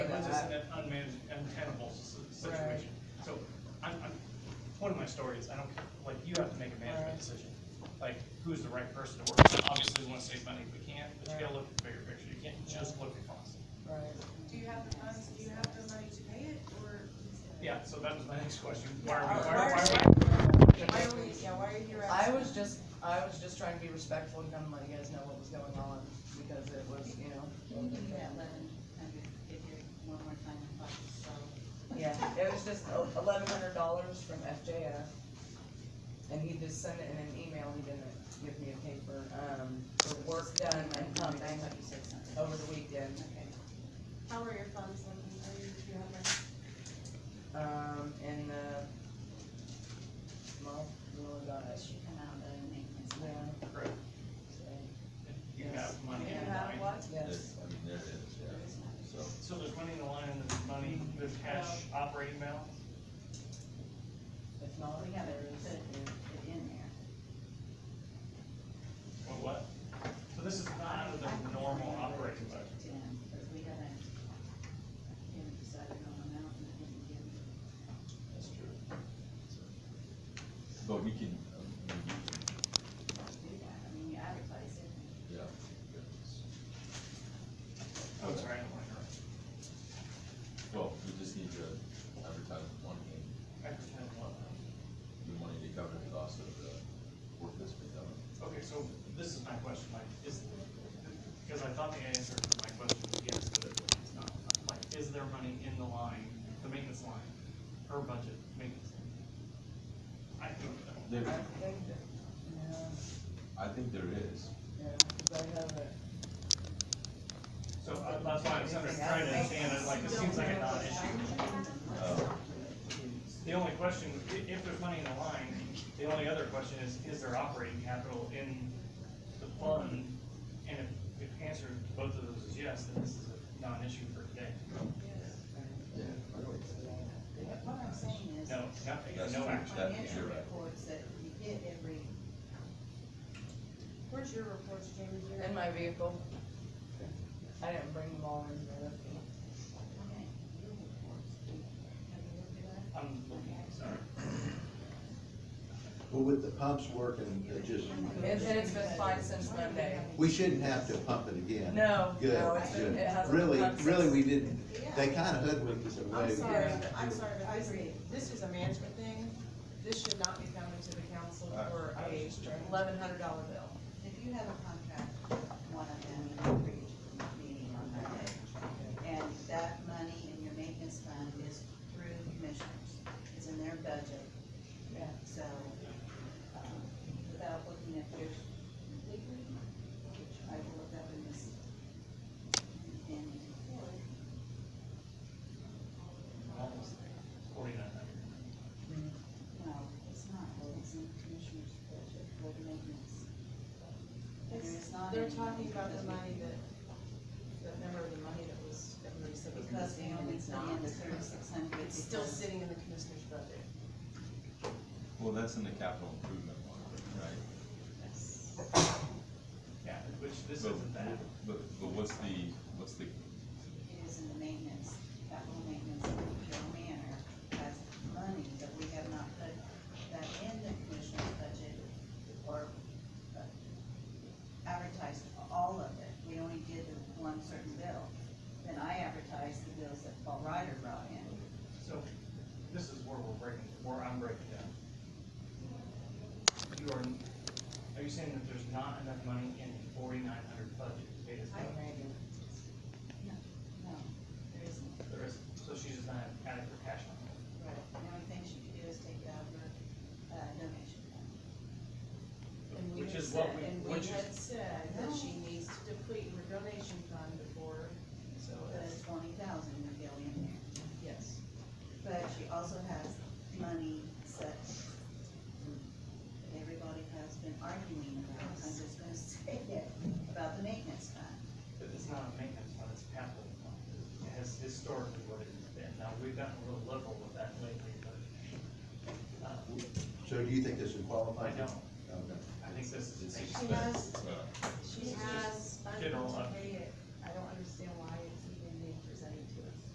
amicable s- situation. So, I'm, I'm, point of my story is, I don't, care. like, you have to make a management Right. decision, like, who's the right person to work with. Obviously, we wanna save money if we can, but you gotta look at the bigger picture, you can't just look at cost. Right. Do you have the funds, do you have the money to pay it, or? Yeah, so that was my next question, why are we, why Why are, are- why are, Why are we, yeah, why are you here I asking? was just, I was just trying to be respectful and kind of let you guys know what was going on, because it was, you know, Can you give me that eleven hundred, if you're one more time in class, so. yeah, it was just eleven hundred dollars from FJF. And he just sent it in an email, he didn't give me a paper, um, for work done and I pumping thought you said something. over the weekend. Okay. How are your funds looking, are you, do you have money? um, in the, well, we only got But it, she come out of maintenance. yeah, correct, so, you have money Do in you the have line. what? yes, There's- I mean, there it is, yeah, so. So there's money in the line, and there's money, there's cash operating balance? if not, We there have it is, put it in there. Or what? So this is not out of the normal operating budget. Yeah, because we haven't, we haven't decided on an amount and we didn't give. That's true. But we can, um, I mean, do that, I mean, you advertise it. you can- yeah. Oh, I'm sorry, I'm wondering. Well, we just need to advertise one thing, I pretend what? we wanted to cover the cost of the work that's been done. Okay, so this is my question, like, is, because I thought the answer to my question was yes, but it's not. Like, is there money in the line, the maintenance line, per budget maintenance? line? I think, that- I There, think that, no, I think there is, yeah, 'cause I have it, so uh, that's why I'm sort of trying to understand, it, like, this seems like a non-issue. uh, The only question, i- if there's money in the line, the only other question is, is there operating capital in the fund? And if, if answer to both of those is yes, then this is a non-issue for today. yeah. What I'm saying is. No, nothing, That's no true. action. Financial You're right. reports that you get every, Where's your reports, Jamie, do you in my vehicle. I didn't bring them all in there. okay, your reports, have you looked at that? I'm looking, sorry. Well, with the pumps working, it just, It's, it's been fine since Monday. we shouldn't have to pump it again. No, Good, no, it's been- good. it hasn't been Really, pumped since- really, we didn't, they kinda hoodwinked us away. I'm sorry, Yeah. but- I'm sorry, but I agree, this is a management thing, this should not be coming to the council I- for Uh, I was a just trying- eleven hundred dollar bill. If you have a contract, one of them, you can reach meeting on Monday. And that money in your maintenance fund is through commissioners, it's in their budget. Yeah. So, um, without looking at yours completely, which I will look up in this, in report, Almost there. Forty-nine hundred. no, it's not, well, it's in commissioner's budget for the maintenance. There is not They're any talking about the because we- money that, the number of the money that was, that we said was. Because they only put in the thirty-six hundred. It's still sitting in the commissioner's budget. Well, that's in the capital improvement one, right? Yeah, which this But- isn't that. But, but what's the, what's the, It is in the maintenance, capital maintenance, Joe Manor has money, but we have not put that in the commissioner's budget or uh, advertised all of it. We only did the one certain bill. Then I advertised the bills that Paul Ryder brought in. So this is where we're breaking, where I'm breaking down. You are, are you saying that there's not enough money in the forty-nine hundred budget to pay this bill? No, there isn't. There is, so she's just not adequate cash on hand. Right. The only thing she could do is take it out of her uh, donation fund. And we Which had is what said- we- And we which is- had said that No. she needs to deplete her donation fund before, so The it's, twenty thousand would go in there. yes. But she also has money set. Everybody has been arguing about, I'm just gonna say it, about the maintenance fund. But it's not a maintenance fund, it's a capital fund. It has historically what it has been. Now, we've gotten a little liberal with that lately, but, uh, So do you think this would I qualify? don't. Okay. I think this is. it's a She has, expense, uh, she has General funds to fund. pay it, I don't understand why it's